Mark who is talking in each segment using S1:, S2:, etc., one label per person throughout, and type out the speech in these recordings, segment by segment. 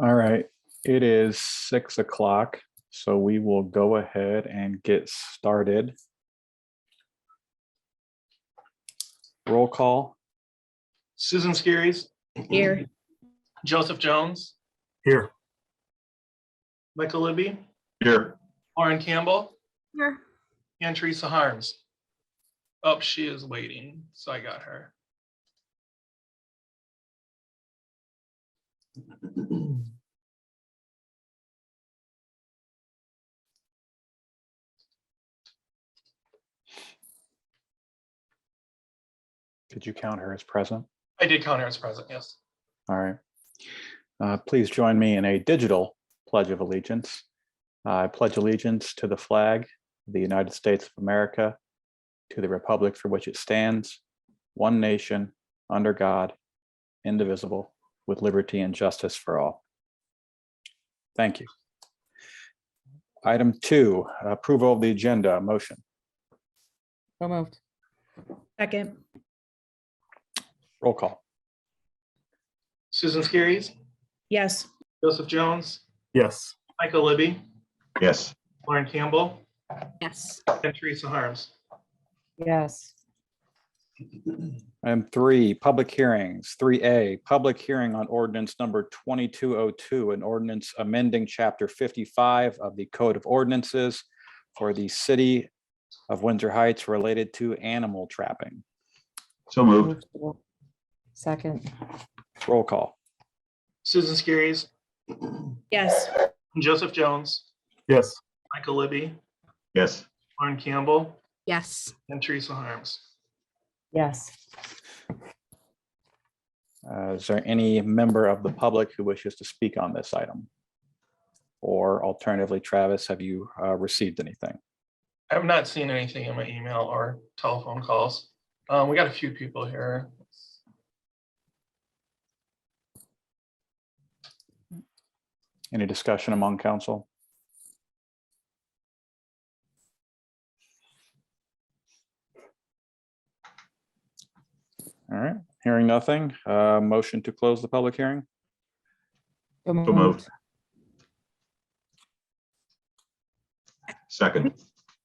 S1: All right, it is six o'clock, so we will go ahead and get started. Roll call,
S2: Susan Skiris,
S3: Here,
S2: Joseph Jones,
S4: Here.
S2: Michael Libby,
S5: Here,
S2: Lauren Campbell,
S6: Here,
S2: and Teresa Harms. Oh, she is waiting, so I got her.
S1: did you count her as present?
S2: I did count her as present, yes.
S1: All right. Uh, Please join me in a digital pledge of allegiance. I pledge allegiance to the flag of the United States of America, to the republic for which it stands, one nation, under God, indivisible, with liberty and justice for all. Thank you. Item two, approval of the agenda, motion.
S7: So moved.
S3: second,
S1: Roll call.
S2: Susan Skiris,
S3: yes,
S2: Joseph Jones,
S4: Yes.
S2: Michael Libby,
S5: yes,
S2: Lauren Campbell,
S6: yes,
S2: and Teresa Harms.
S7: Yes.
S1: Item three, public hearings. Three A, public hearing on ordinance number twenty-two oh two, an ordinance amending chapter fifty-five of the Code of Ordinances for the city of Windsor Heights related to animal trapping.
S5: so moved,
S7: Second,
S1: Roll call.
S2: Susan Skiris,
S3: yes,
S2: Joseph Jones,
S4: Yes.
S2: Michael Libby,
S5: yes,
S2: Lauren Campbell,
S6: yes,
S2: and Teresa Harms.
S7: yes.
S1: Uh, Is there any member of the public who wishes to speak on this item? Or alternatively, Travis, have you uh, received anything?
S2: I have not seen anything in my email or telephone calls. Um, we got a few people here.
S1: Any discussion among council? All right, hearing nothing, uh, motion to close the public hearing.
S7: So
S5: so moved. Second,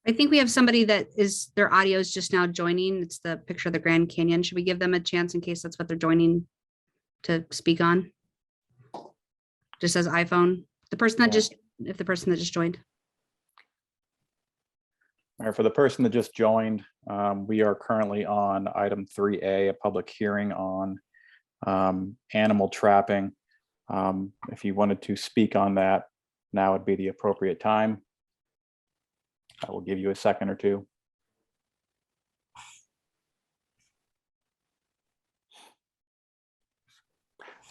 S6: I think we have somebody that is, their audio is just now joining. It's the picture of the Grand Canyon. Should we give them a chance in case that's what they're joining to speak on? Just says iPhone, the person that
S1: Yeah.
S6: just, if the person that just joined.
S1: All right, for the person that just joined, um, we are currently on item three A, a public hearing on um, animal trapping. Um, If you wanted to speak on that, now would be the appropriate time. I will give you a second or two.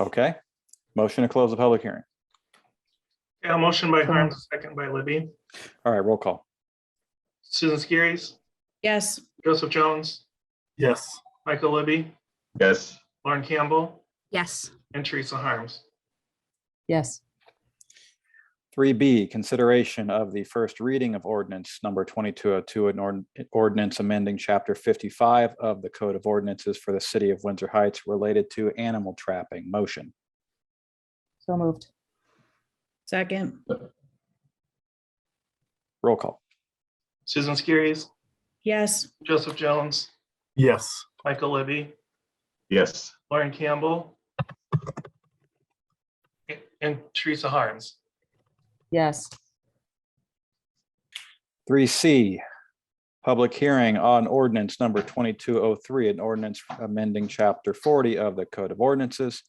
S1: Okay, motion to close the public hearing.
S2: Yeah, motion by Harms, second by Libby.
S1: All right, roll call.
S2: Susan Skiris,
S3: yes,
S2: Joseph Jones,
S4: Yes.
S2: Michael Libby,
S5: yes,
S2: Lauren Campbell,
S6: Yes,
S2: and Teresa Harms.
S7: Yes,
S1: Three B, consideration of the first reading of ordinance number twenty-two oh two, an ord- ordinance amending chapter fifty-five of the Code of Ordinances for the City of Windsor Heights related to animal trapping. Motion.
S7: so moved.
S3: second,
S1: Roll call.
S2: Susan Skiris,
S3: yes,
S2: Joseph Jones,
S4: Yes.
S2: Michael Libby,
S5: yes,
S2: Lauren Campbell, and Teresa Harms.
S7: Yes,
S1: Three C, public hearing on ordinance number twenty-two oh three, an ordinance amending chapter forty of the Code of Ordinances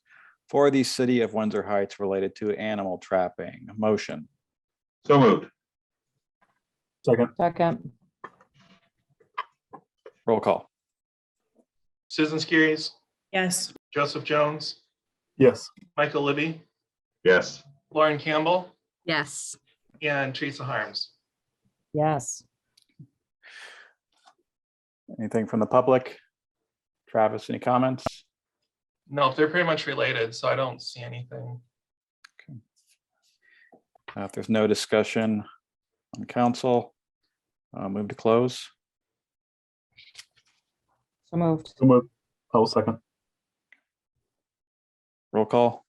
S1: for the City of Windsor Heights related to animal trapping. Motion.
S5: so moved,
S4: Second.
S7: second,
S1: Roll call.
S2: Susan Skiris,
S3: yes,
S2: Joseph Jones,
S4: Yes.
S2: Michael Libby,
S5: yes,
S2: Lauren Campbell,
S6: yes,
S2: and Teresa Harms.
S7: yes.
S1: Anything from the public? Travis, any comments?
S2: No, they're pretty much related, so I don't see anything.
S1: Uh, If there's no discussion on council, uh, move to close.
S7: So moved.
S4: So moved. I will second.
S1: Roll call.